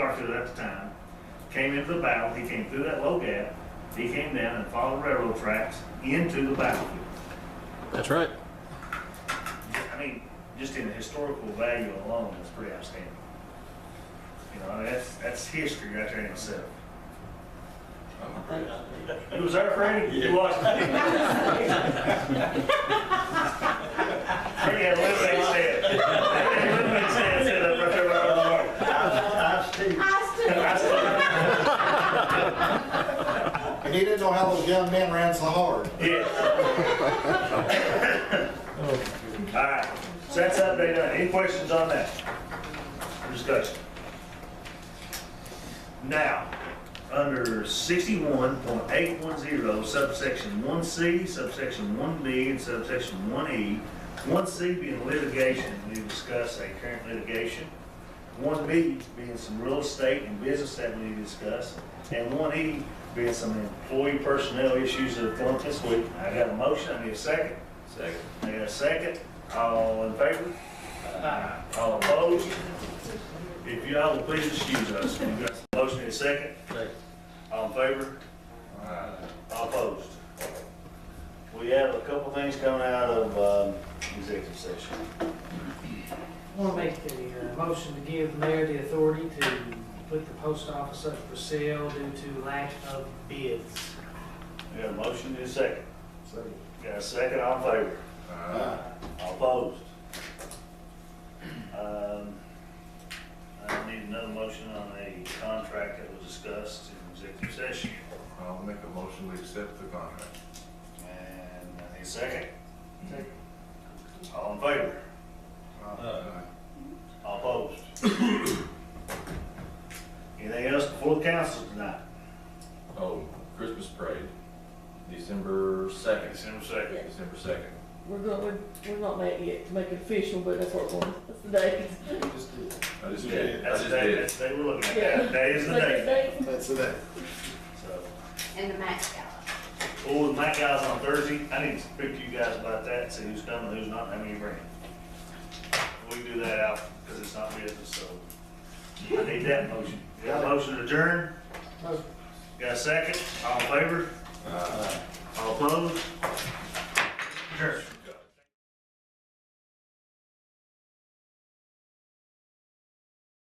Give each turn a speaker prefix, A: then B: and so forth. A: officer at the time, came into the battle, he came through that low gap, he came down and followed railroad tracks into the battlefield.
B: That's right.
A: I mean, just in the historical value alone, it's pretty outstanding. You know, that's, that's history right there in itself. You was there, Freddie? You watched it? Freddie had a little bit said. Freddie had a little bit said, said up right there by the wall. I said,
C: And he didn't know how those young men ran so hard.
A: Yes. All right, so that's update done. Any questions on that? Discussion. Now, under sixty-one point eight one zero subsection one C, subsection one B, and subsection one E, one C being litigation, we discuss a current litigation. One B being some real estate and business that we need to discuss, and one E being some employee personnel issues that have come up this week. I got a motion, I need a second.
D: Second.
A: I got a second. All in favor? All opposed? If you all will please excuse us, we got a motion and a second. All in favor? All opposed? We have a couple things coming out of um, executive session.
E: I want to make the uh, motion to give the mayor the authority to put the post office up for sale due to lack of bids.
A: We got a motion and a second. Got a second, all in favor? All opposed? Um, I need another motion on a contract that was discussed in executive session.
D: I'll make a motion to accept the contract.
A: And I need a second. All in favor?
F: Uh,
A: All opposed? Anything else before the council tonight?
F: Oh, Christmas parade, December second.
A: December second.
F: December second.
G: We're going, we're, we're not making it to make it official, but that's what we're going, that's the date.
F: I just
A: Yeah,
F: did, I
A: That's
F: just
A: the day,
F: did.
A: that's the day we're looking at. That- That is the day.
C: That's the day.
A: So,
H: And the match gala.
A: oh, my guys on Thursday, I need to speak to you guys about that, see who's coming, who's not, and how many bring. We can do that out, because it's not business, so I need that motion. Got a motion to adjourn?
E: Motion.
A: Got a second? All in favor? All opposed? Sure.